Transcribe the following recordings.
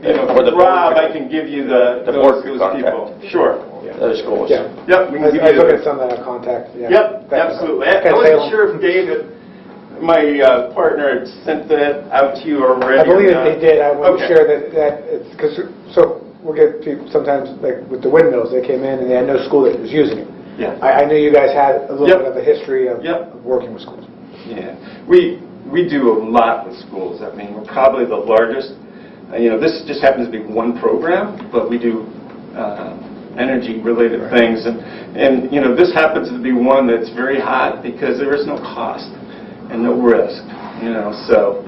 you know, Or the board Rob, could- I can give you the, The board those could those contact. people. Sure. those schools. Yeah. Yep, we I can give I you took it those. as something I contact, yeah. Yep, That's- absolutely. I I Okay, wasn't Salem. sure if David, my uh, partner, had sent that out to you already. I believe or that not. they did, I want Okay. to share that, that, it's, because, so, we'll get people, sometimes, like, with the windmills, they came in and they had no school that was using it. Yeah. I, I knew you guys had a little Yep. bit of a history of Yep. of working with schools. Yeah, we, we do a lot with schools. I mean, we're probably the largest, uh, you know, this just happens to be one program, but we do uh, energy-related things. And, and, you know, this happens to be one that's very hot because there is no cost and no risk, you know, so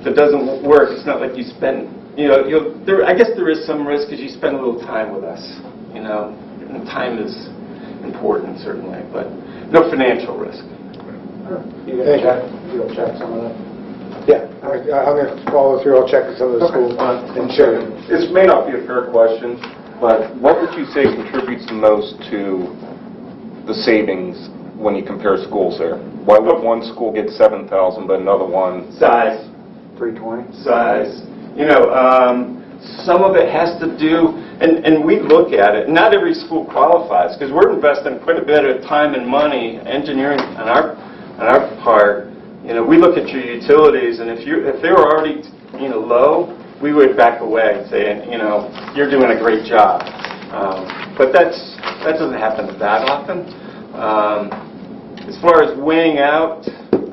if it doesn't work, it's not like you spend, you know, you'll, there, I guess there is some risk because you spend a little time with us, you know, and time is important certainly, but no financial risk. You gonna check, you'll check some of that? Yeah, I- I'm going to follow through, I'll check some of the schools and share them. This may not be a fair question, but what would you say contributes the most to the savings when you compare schools there? Why would one school get 7,000 but another one? Size. 320? size. You know, um, some of it has to do, and, and we look at it, not every school qualifies, because we're investing quite a bit of time and money, engineering on our, on our part. You know, we look at your utilities, and if you, if they were already, you know, low, we would back away, saying, you know, you're doing a great job. Um, But that's, that doesn't happen that often. Um, as far as weighing out,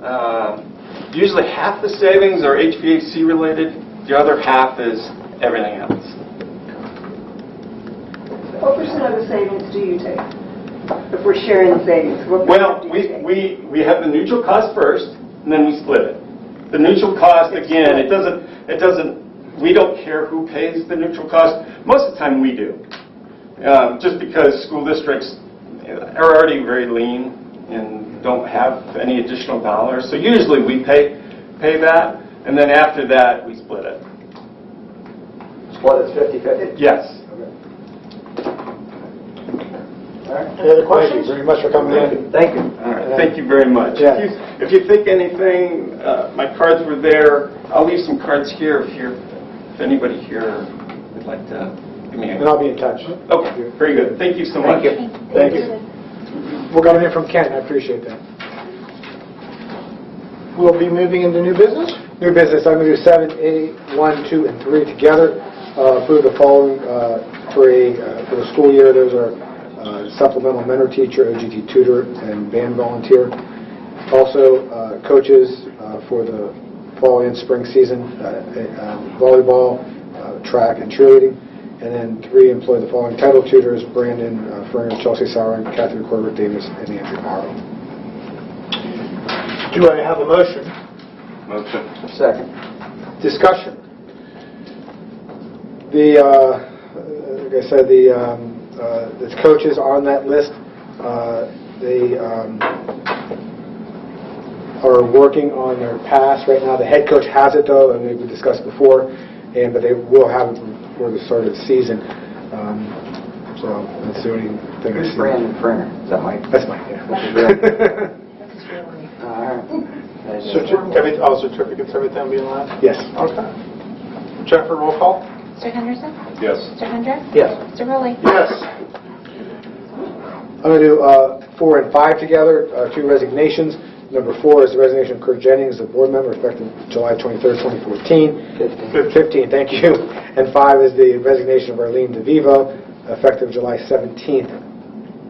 um, usually half the savings are HVAC related, the other half is everything else. What percent of the savings do you take? If we're sharing the savings, what Well, percent do you we, take? we, we have the neutral cost first, and then we split it. The neutral cost, again, it doesn't, it doesn't, we don't care who pays the neutral cost. Most of the time, we do. Um, Just because school districts uh, are already very lean and don't have any additional dollars. So usually, we pay, pay that, and then after that, we split it. Well, it's 50/50. Yes. Any other questions? Thank you very much for coming in. Thank you. All right, thank you very much. Yeah. If you- If you think anything, uh, my cards were there. I'll leave some cards here if you're, if anybody here would like to give me And a... I'll be in touch. Okay, very good. Thank you so much. Thank you. Thank you. We're coming in from Kent, I appreciate that. We'll be moving into new business? New business, I'm going to do seven, eight, one, two, and three together. Uh, Approve the following uh, for a, uh, for the school year, those are uh, supplemental mentor teacher, OGT tutor, and band volunteer. Also, uh, coaches uh, for the fall and spring season, uh, uh, volleyball, uh, track, and cheerleading. And then three, employ the following title tutors, Brandon uh, Ferner, Chelsea Sauer, Catherine Corbett Davis, and Andrew Morrow. Do I have a motion? Motion. Second. Discussion. The, uh, like I said, the um, uh, the coaches on that list, uh, they um, are working on their pass right now. The head coach has it, though, and we discussed before, and, but they will have it before the start of the season. Um, So that's the only thing I see. Who's Brandon Fringer? Is that Mike? That's mine, yeah. Brandon. All right. Certificates, all certificates, everything being left? Yes. Okay. Jennifer, roll call? Mr. Henderson? Yes. Mr. Hendricks? Yes. Mr. Rowley? Yes. I'm going to do uh, four and five together, uh, two resignations. Number four is the resignation of Kurt Jennings, a board member effective July 23rd, 2014. 15, Fifteen. thank you. And five is the resignation of Arlene DeVivo effective July 17th,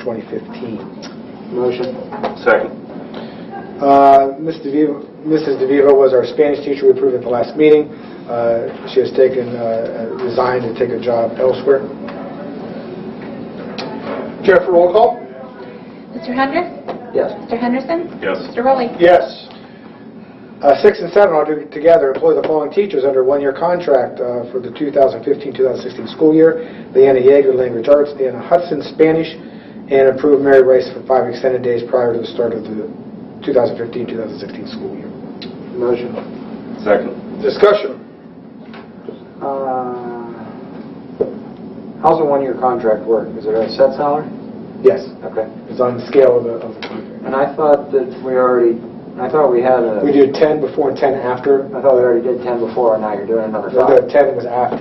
2015. Motion. Second. Uh, Ms. DeVivo- Mrs. DeVivo was our Spanish teacher we approved at the last meeting. Uh, She has taken, uh, resigned to take a job elsewhere. Jennifer, roll call? Mr. Hendricks? Yes. Mr. Henderson? Yes. Mr. Rowley? Yes. Uh, Six and seven, I'll do together, employ the following teachers under a one-year contract uh, for the 2015-2016 school year. Leanna Yeager, Language Arts, Anna Hudson, Spanish, and approve Mary Rice for five extended days prior to the start of the 2015-2016 school year. Motion. Second. Discussion. Uh, How's a one-year contract work? Is it a set salary? Yes, Okay. it's on the scale of the of the contract. And I thought that we already, I thought we had a, We do 10 before and 10 after. I thought we already did 10 before, and now you're doing another No, no, five. 10 was after.